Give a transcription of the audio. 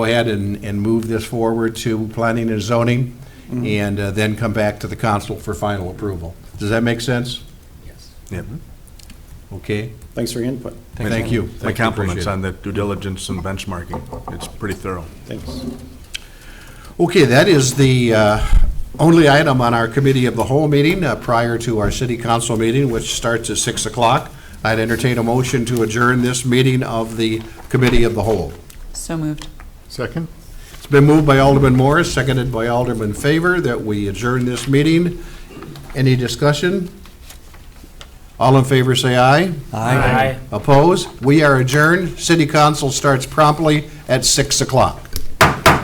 go ahead and, and move this forward to planning and zoning, and uh, then come back to the council for final approval. Does that make sense? Yes. Yeah. Okay, Thanks for your input. thank you. My Thank you. Appreciate compliments it. on the due diligence and benchmarking. It's pretty thorough. Thanks. Okay, that is the uh, only item on our committee of the whole meeting uh, prior to our city council meeting, which starts at 6 o'clock. I'd entertain a motion to adjourn this meeting of the committee of the whole. So moved. Second? It's been moved by Alderman Morris, seconded by Alderman Favor, that we adjourn this meeting. Any discussion? All in favor, say aye. Aye. Oppose? We are adjourned. City council starts promptly at 6 o'clock.